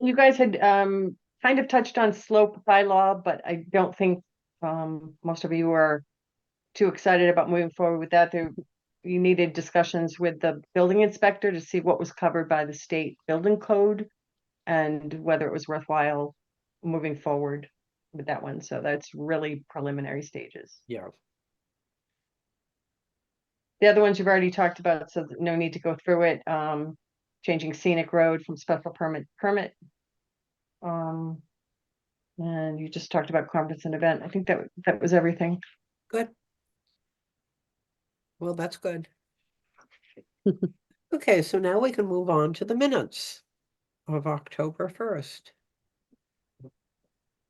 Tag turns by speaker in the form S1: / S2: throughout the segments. S1: you guys had um kind of touched on slope bylaw, but I don't think um most of you are too excited about moving forward with that. There, you needed discussions with the building inspector to see what was covered by the state building code and whether it was worthwhile moving forward with that one. So that's really preliminary stages.
S2: Yeah.
S1: The other ones you've already talked about, so th- no need to go through it, um, changing scenic road from special permit, to permit. Um, and you just talked about conference and event, I think that, w- that was everything.
S3: Good. Well, that's good. Okay, so now we can move on to the minutes of October first.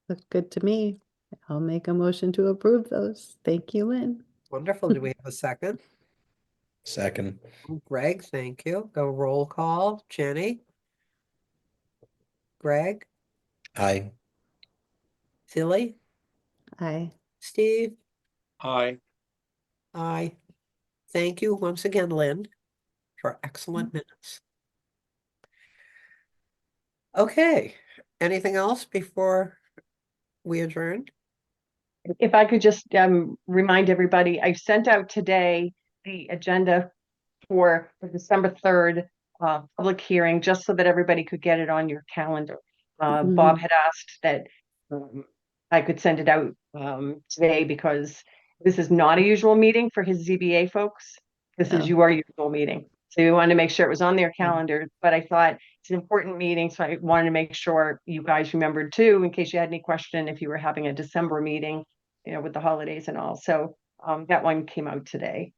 S4: Look good to me. I'll make a motion to approve those. Thank you, Lynn.
S3: Wonderful. Do we have a second? Oh,
S2: Second.
S3: Greg, thank you. Go roll call. Jenny? Greg,
S2: Aye.
S3: Tilly,
S4: Aye.
S3: Steve?
S2: Aye.
S3: I thank you once again, Lynn, for excellent
S4: Mm-hmm.
S3: minutes. Okay, anything else before we adjourn?
S1: If I could just, um, remind everybody, I sent out today the agenda for the December third, uh, public hearing, just so that everybody could get it on your calendar. Uh, Bob had asked that, um, I could send it out, um, today because this is not a usual meeting for his ZBA folks. This
S4: Oh.
S1: is your usual meeting. So we wanted to make sure it was on their calendar, but I thought it's an important meeting, so I wanted to make sure you guys remembered too, in case you had any question, if you were having a December meeting, you know, with the holidays and all. So, um, that one came out today.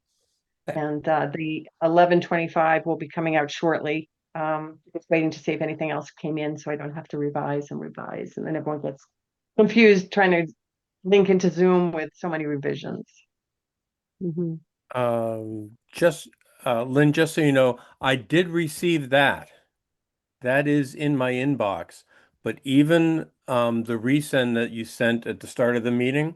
S3: Okay.
S1: And, uh, the eleven twenty-five will be coming out shortly. Um, just waiting to see if anything else came in, so I don't have to revise and revise, and then everyone gets confused trying to link into Zoom with so many revisions.
S3: Mm-hmm.
S4: Mhm.
S5: Um, just, uh, Lynn, just so you know, I did receive that. That is in my inbox, but even, um, the resend that you sent at the start of the meeting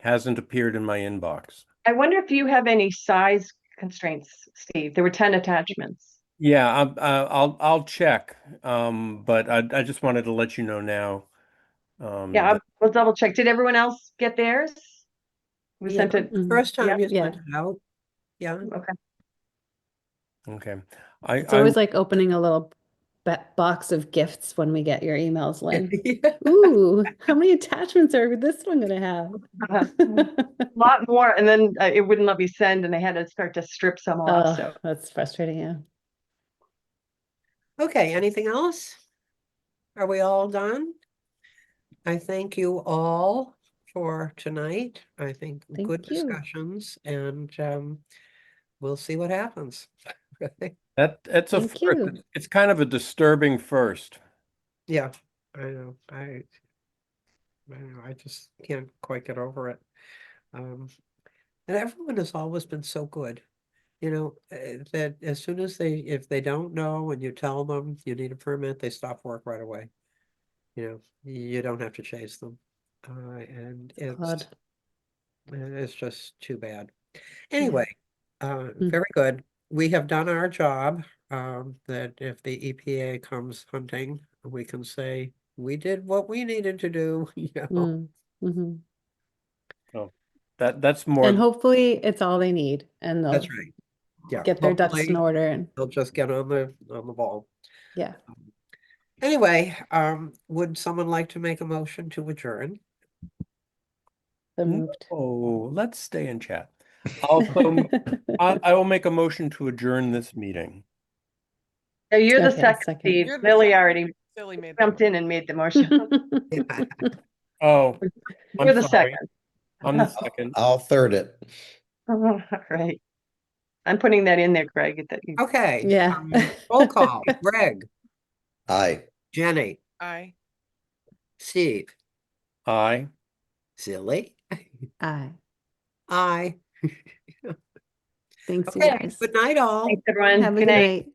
S5: hasn't appeared in my inbox.
S1: I wonder if you have any size constraints, Steve? There were ten attachments.
S5: Yeah, I, I, I'll, I'll check, um, but I, I just wanted to let you know now. um,
S1: Yeah,
S5: that-
S1: I'll- we'll double check. Did everyone else get theirs? We
S3: Yeah.
S1: sent it,
S4: Mhm.
S3: First
S1: Yeah.
S3: time you
S4: Yeah.
S3: sent it out. Yeah,
S1: okay,
S5: Okay, I,
S4: It's
S5: I,
S4: always like opening a little ba- box of gifts when we get your emails, Lynn.
S3: Yeah.
S4: Ooh, how many attachments are this one gonna have? Oh,
S1: Uh,
S3: Mm-hmm.
S1: a lot more, and then uh, it wouldn't let me send, and I had to start to strip some off, so.
S4: Oh, that's frustrating, yeah.
S3: okay, anything else? Are we all done? I thank you all for tonight. I think
S4: Thank
S3: good
S4: you.
S3: discussions and um, we'll see what happens.
S5: that, that's a,
S4: Thank
S5: first.
S4: you.
S5: It's- it's kind of a disturbing first.
S3: Yeah, I know, I. I know, I just can't quite get over it. Um, and everyone has always been so good. You know, uh, that as soon as they, if they don't know and you tell them you need a permit, they stop work right away. You know, you don't have to chase them. Uh, and it's,
S4: Odd.
S3: and it's just too bad. Anyway, uh,
S4: Hmm.
S3: very good. We have done our job, um, that if the EPA comes hunting, we can say, we did what we needed to do, you know.
S4: Mm, mhm.
S5: That, that's more.
S4: And hopefully it's all they need and they'll
S3: That's right. Yeah.
S4: get their ducks in
S3: hopefully
S4: order and,
S3: They'll just get on the, on the ball. Um,
S4: yeah.
S3: Anyway, um, would someone like to make a motion to adjourn?
S4: So
S3: Mm-hmm.
S4: moved.
S5: Oh, let's stay and chat. Also, I, I will make a motion to adjourn this meeting.
S1: No, You're the
S4: Okay,
S1: second,
S4: second.
S1: Steve.
S6: You're the
S1: Lily
S6: second.
S1: already
S6: Silly made.
S1: jumped in and made the motion.
S5: Oh. I'm
S1: You're the
S5: sorry.
S1: second.
S5: I'm the second.
S2: I'll third it.
S1: All right. I'm putting that in there, Greg, that you,
S3: Okay.
S4: Yeah.
S3: um, Roll call, Greg,
S2: Aye.
S3: Jenny,
S6: Aye.
S3: Steve,
S5: Aye.
S3: Silly,
S4: Aye,
S3: I.
S4: thanks you
S3: Okay,
S4: guys.
S3: good night all.
S1: thanks, everyone.
S4: Have a
S1: Good night.
S4: night.